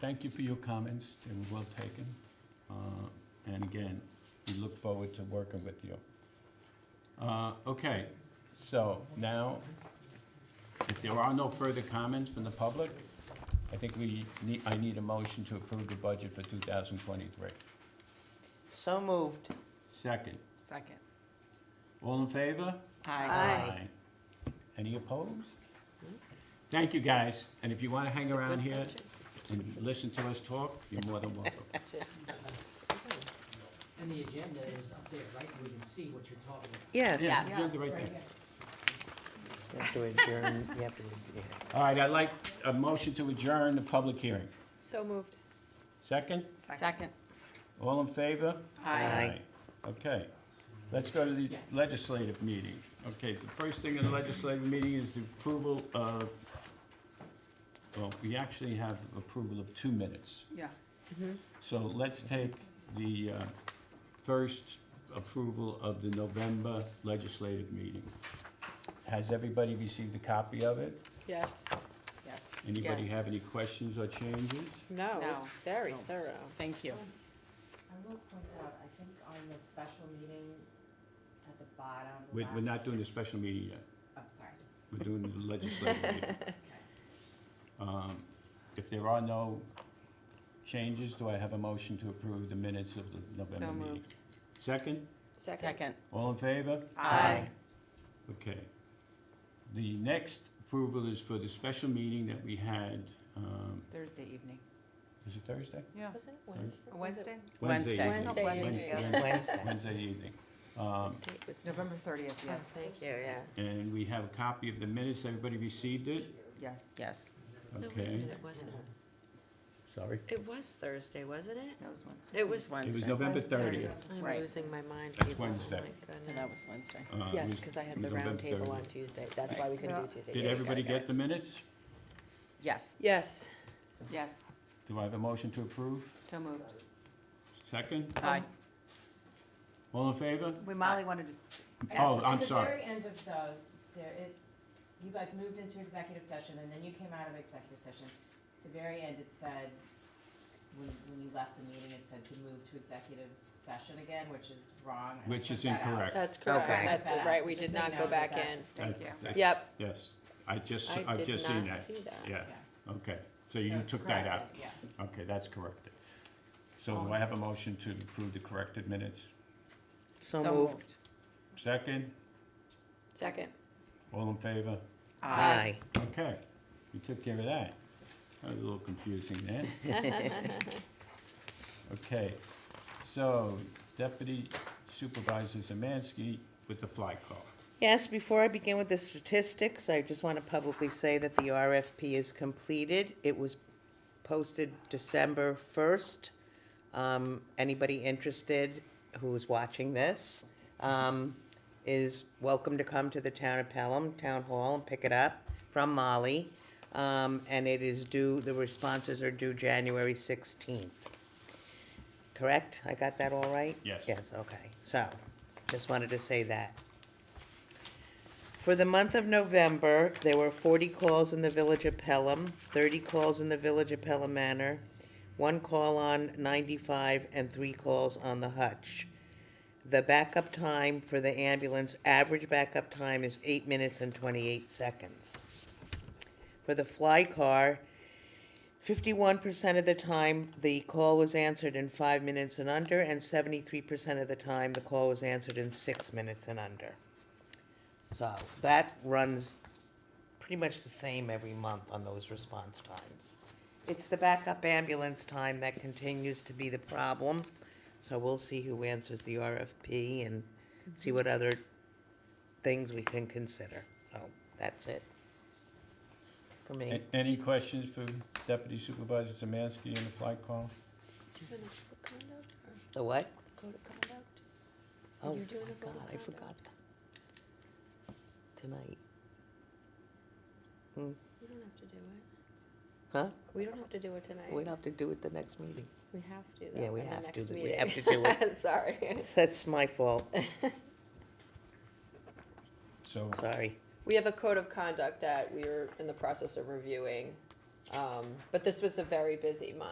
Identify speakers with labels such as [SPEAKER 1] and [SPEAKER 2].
[SPEAKER 1] thank you for your comments, they were well taken. Uh, And again, we look forward to working with you. Uh, Okay, so now, if there are no further comments from the public, I think we need, I need a motion to approve the budget for 2023.
[SPEAKER 2] So moved.
[SPEAKER 1] Second,
[SPEAKER 3] Second.
[SPEAKER 1] all in favor?
[SPEAKER 2] Aye.
[SPEAKER 1] Aye. Any opposed? Thank you, guys, and if you want to hang around here and listen to us talk, you're more than welcome.
[SPEAKER 4] And the agenda is up there, right, so we can see what you're talking about.
[SPEAKER 2] Yes.
[SPEAKER 3] Yes.
[SPEAKER 1] Yeah, they're right there.
[SPEAKER 2] You have to adjourn, you have to, yeah.
[SPEAKER 1] All right, I'd like a motion to adjourn the public hearing.
[SPEAKER 5] So moved.
[SPEAKER 1] Second,
[SPEAKER 3] Second.
[SPEAKER 1] all in favor?
[SPEAKER 2] Aye.
[SPEAKER 1] Okay, let's go to the
[SPEAKER 4] Yeah.
[SPEAKER 1] legislative meeting. Okay, the first thing in the legislative meeting is the approval of, well, we actually have approval of two minutes.
[SPEAKER 3] Yeah.
[SPEAKER 1] So let's take the uh, first approval of the November legislative meeting. Has everybody received a copy of it?
[SPEAKER 5] Yes.
[SPEAKER 3] Yes.
[SPEAKER 1] Anybody
[SPEAKER 3] Yes.
[SPEAKER 1] have any questions or changes?
[SPEAKER 5] No, it was
[SPEAKER 3] No.
[SPEAKER 5] very
[SPEAKER 3] No.
[SPEAKER 5] thorough.
[SPEAKER 3] Thank you.
[SPEAKER 6] I will point out, I think on the special meeting at the bottom, the
[SPEAKER 1] We're,
[SPEAKER 6] last.
[SPEAKER 1] we're not doing a special meeting yet,
[SPEAKER 6] I'm sorry.
[SPEAKER 1] we're doing the legislative meeting. Um, If there are no changes, do I have a motion to approve the minutes of the November
[SPEAKER 3] So
[SPEAKER 1] meeting?
[SPEAKER 3] moved.
[SPEAKER 1] Second?
[SPEAKER 5] Second.
[SPEAKER 3] Second.
[SPEAKER 1] All in favor?
[SPEAKER 3] Aye.
[SPEAKER 1] Okay. The next approval is for the special meeting that we had, um,
[SPEAKER 3] Thursday evening.
[SPEAKER 1] was it Thursday?
[SPEAKER 3] Yeah.
[SPEAKER 5] Was it
[SPEAKER 3] Wednesday?
[SPEAKER 1] Wednesday evening.
[SPEAKER 5] Wednesday
[SPEAKER 1] Wednesday
[SPEAKER 5] evening,
[SPEAKER 1] evening.
[SPEAKER 5] yeah.
[SPEAKER 2] Wednesday.
[SPEAKER 1] Wednesday evening. Um,
[SPEAKER 5] It was November.
[SPEAKER 3] November thirtieth,
[SPEAKER 5] Oh,
[SPEAKER 3] yes.
[SPEAKER 5] thank you, yeah.
[SPEAKER 1] And we have a copy of the minutes. Everybody received it?
[SPEAKER 3] Yes. Yes.
[SPEAKER 5] No, wait a
[SPEAKER 1] Okay.
[SPEAKER 5] minute, It wasn't,
[SPEAKER 1] Sorry.
[SPEAKER 5] it was Thursday, wasn't it?
[SPEAKER 3] That was Wednesday.
[SPEAKER 5] It was-
[SPEAKER 1] It was
[SPEAKER 3] Wednesday.
[SPEAKER 1] November
[SPEAKER 3] Wednesday.
[SPEAKER 1] 30th.
[SPEAKER 5] I'm
[SPEAKER 3] Right.
[SPEAKER 5] losing my mind,
[SPEAKER 1] That's
[SPEAKER 5] people. Oh,
[SPEAKER 1] Wednesday.
[SPEAKER 5] my
[SPEAKER 3] And that was
[SPEAKER 5] goodness.
[SPEAKER 3] Wednesday.
[SPEAKER 1] Uh, it
[SPEAKER 5] Yes,
[SPEAKER 1] was-
[SPEAKER 5] because I
[SPEAKER 1] it
[SPEAKER 5] had the
[SPEAKER 1] was
[SPEAKER 5] round
[SPEAKER 1] November
[SPEAKER 5] table
[SPEAKER 1] 30th.
[SPEAKER 5] on Tuesday. That's why we couldn't do Tuesday.
[SPEAKER 1] Did
[SPEAKER 5] Yeah, I got
[SPEAKER 1] everybody
[SPEAKER 5] it, got
[SPEAKER 1] get
[SPEAKER 5] it.
[SPEAKER 1] the minutes?
[SPEAKER 3] Yes.
[SPEAKER 5] Yes.
[SPEAKER 3] Yes.
[SPEAKER 1] Do I have a motion to approve?
[SPEAKER 3] So moved.
[SPEAKER 1] Second?
[SPEAKER 3] Aye.
[SPEAKER 1] All in favor?
[SPEAKER 3] Wait, Molly wanted to.
[SPEAKER 1] Oh,
[SPEAKER 3] ask-
[SPEAKER 1] I'm sorry.
[SPEAKER 6] At the very end of those, there, it, you guys moved into executive session and then you came out of executive session. At The very end, it said, when, when you left the meeting, it said to move to executive session again, which is wrong. I
[SPEAKER 1] Which
[SPEAKER 6] took
[SPEAKER 1] is
[SPEAKER 6] that out.
[SPEAKER 1] incorrect.
[SPEAKER 5] That's correct.
[SPEAKER 2] Okay.
[SPEAKER 5] That's
[SPEAKER 6] Took
[SPEAKER 5] it,
[SPEAKER 6] that out,
[SPEAKER 5] right.
[SPEAKER 6] so
[SPEAKER 5] We
[SPEAKER 6] just
[SPEAKER 5] did
[SPEAKER 6] so you
[SPEAKER 5] not
[SPEAKER 6] know that
[SPEAKER 5] go back
[SPEAKER 6] that's-
[SPEAKER 5] in.
[SPEAKER 3] Thank you.
[SPEAKER 1] That's- that-
[SPEAKER 5] Yep.
[SPEAKER 1] Yes. I just,
[SPEAKER 5] I
[SPEAKER 1] I've
[SPEAKER 5] did
[SPEAKER 1] just seen
[SPEAKER 5] not
[SPEAKER 1] that.
[SPEAKER 5] see that.
[SPEAKER 1] Yeah,
[SPEAKER 6] Yeah.
[SPEAKER 1] okay. So
[SPEAKER 6] So
[SPEAKER 1] you
[SPEAKER 6] it's
[SPEAKER 1] took that out.
[SPEAKER 6] corrected, Yeah.
[SPEAKER 1] Okay, that's corrected. So do I have a motion to approve the corrected minutes?
[SPEAKER 2] So moved.
[SPEAKER 1] Second,
[SPEAKER 5] Second.
[SPEAKER 1] all in favor?
[SPEAKER 2] Aye.
[SPEAKER 1] Okay, we took care of that. That was a little confusing then. Okay, so Deputy Supervisor Zamansky with the fly call.
[SPEAKER 2] Yes, before I begin with the statistics, I just want to publicly say that the RFP is completed. It was posted December 1st. Um, Anybody interested who is watching this um, is welcome to come to the Town of Pelham Town Hall and pick it up from Molly. Um, And it is due, the responses are due January 16th. Correct? I got that all right?
[SPEAKER 1] Yes.
[SPEAKER 2] Yes, okay. So, just wanted to say that. For the month of November, there were forty calls in the village of Pelham, thirty calls in the village of Pelham Manor, one call on ninety-five, and three calls on the Hutch. The backup time for the ambulance, average backup time is eight minutes and twenty-eight seconds. For the fly car, fifty-one percent of the time, the call was answered in five minutes and under, and seventy-three percent of the time, the call was answered in six minutes and under. So that runs pretty much the same every month on those response times. It's the backup ambulance time that continues to be the problem. So we'll see who answers the RFP and see what other things we can consider. So that's it for me.
[SPEAKER 1] A- Any questions for Deputy Supervisor Zamansky and the fly call?
[SPEAKER 5] Doing a code of conduct or
[SPEAKER 2] The what?
[SPEAKER 5] code of conduct? Are
[SPEAKER 2] Oh,
[SPEAKER 5] you doing a
[SPEAKER 2] God,
[SPEAKER 5] code of
[SPEAKER 2] I
[SPEAKER 5] conduct?
[SPEAKER 2] forgot that. Tonight,
[SPEAKER 5] You don't have to do it.
[SPEAKER 2] huh?
[SPEAKER 5] We don't have to do it tonight.
[SPEAKER 2] We'd have to do it the next meeting.
[SPEAKER 5] We have to,
[SPEAKER 2] Yeah,
[SPEAKER 5] though,
[SPEAKER 2] we
[SPEAKER 5] in the
[SPEAKER 2] have to
[SPEAKER 5] next
[SPEAKER 2] do- we
[SPEAKER 5] meeting.
[SPEAKER 2] have to do it.
[SPEAKER 5] Sorry.
[SPEAKER 2] That's my fault,
[SPEAKER 1] So,
[SPEAKER 2] sorry.
[SPEAKER 5] We have a code of conduct that we are in the process of reviewing, um, but this was a very busy month.